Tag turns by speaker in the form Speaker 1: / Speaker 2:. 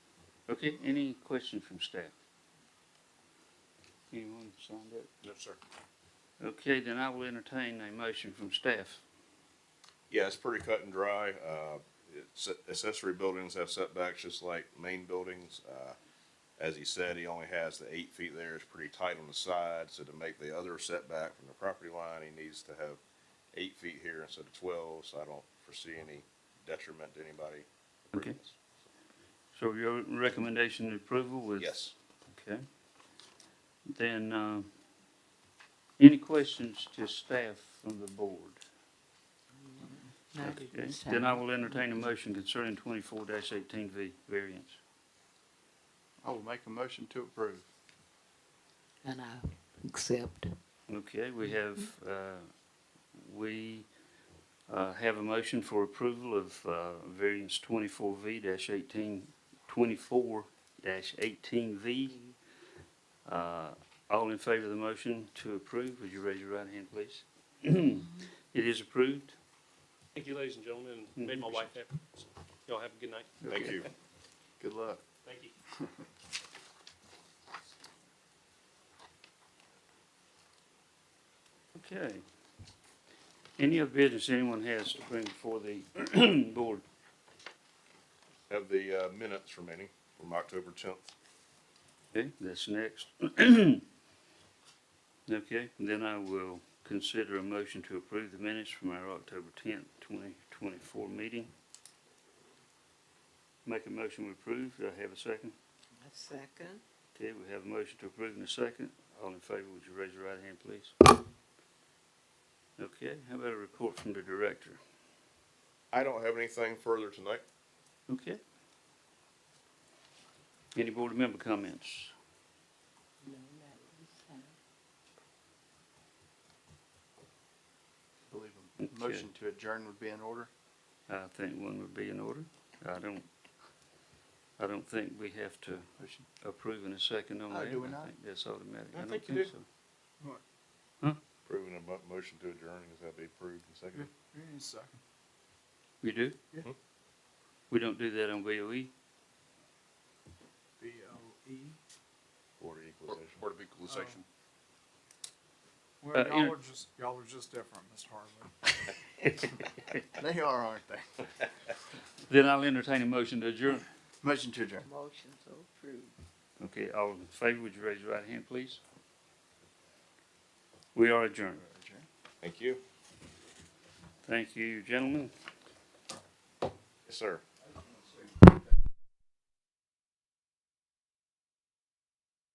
Speaker 1: Okay, any questions from staff? Anyone signed up?
Speaker 2: No, sir.
Speaker 1: Okay, then I will entertain a motion from staff.
Speaker 2: Yeah, it's pretty cut and dry. Uh, it's, accessory buildings have setbacks just like main buildings. Uh, as he said, he only has the eight feet there. It's pretty tight on the side, so to make the other setback from the property line, he needs to have eight feet here instead of twelve, so I don't foresee any detriment to anybody. approving
Speaker 1: Okay.
Speaker 2: this.
Speaker 1: So your recommendation of approval was?
Speaker 2: Yes.
Speaker 1: Okay. Then, uh, any questions to staff from the board?
Speaker 3: No,
Speaker 1: Okay,
Speaker 3: it's
Speaker 1: Then I
Speaker 3: time.
Speaker 1: will entertain a motion concerning twenty-four eighteen V variance.
Speaker 4: I will make a motion to approve.
Speaker 3: And I accept.
Speaker 1: Okay, we have, uh, we, uh, have a motion for approval of, uh, variance twenty-four V dash eighteen, twenty-four dash eighteen V. Uh, all in favor of the motion to approve, would you raise your right hand, please? It is approved.
Speaker 5: Thank you, ladies and gentlemen, and made my wife happy. So, Y'all have a good night.
Speaker 2: Mm-hmm. Thank you.
Speaker 4: Good luck.
Speaker 5: Thank you.
Speaker 1: Okay. Any other business anyone has to bring before the board?
Speaker 2: Have the, uh, minutes remaining from October tenth.
Speaker 1: Okay, that's next. Okay, then I will consider a motion to approve the minutes from our October tenth, twenty twenty-four meeting. Make a motion to approve. Do I have a second?
Speaker 3: A second.
Speaker 1: Okay, we have a motion to approve in a second. All in favor, would you raise your right hand, please? Okay, how about a report from the director?
Speaker 2: I don't have anything further tonight.
Speaker 1: Okay. Any board member comments?
Speaker 4: I believe a motion to adjourn would be in order.
Speaker 1: I think one would be in order. I don't, I don't think we have to
Speaker 4: Motion.
Speaker 1: approve in a second on
Speaker 4: Oh,
Speaker 1: that.
Speaker 4: do we
Speaker 1: I
Speaker 4: not?
Speaker 1: think That's automatic.
Speaker 5: I
Speaker 1: don't
Speaker 5: think you
Speaker 1: so.
Speaker 2: Approving a mo- motion to adjourn, is that be approved and seconded?
Speaker 4: Second.
Speaker 1: We do? Hmm?
Speaker 4: Yeah.
Speaker 2: Mhm.
Speaker 1: We don't do that on E? BOE?
Speaker 4: B O E.
Speaker 2: Board of Equalization.
Speaker 6: Board of Equalization.
Speaker 1: Uh,
Speaker 6: Well,
Speaker 1: inter-
Speaker 6: y'all are just, y'all are just different, Mr. Harlan.
Speaker 4: They are, aren't they?
Speaker 1: Then I'll entertain a motion to adjourn.
Speaker 4: Motion to adjourn.
Speaker 3: Motion to approve.
Speaker 1: Okay, all in favor, would you raise your right hand, please? We are adjourned.
Speaker 4: Adjourn.
Speaker 2: Thank you.
Speaker 1: Thank you, gentlemen.
Speaker 2: Yes, sir.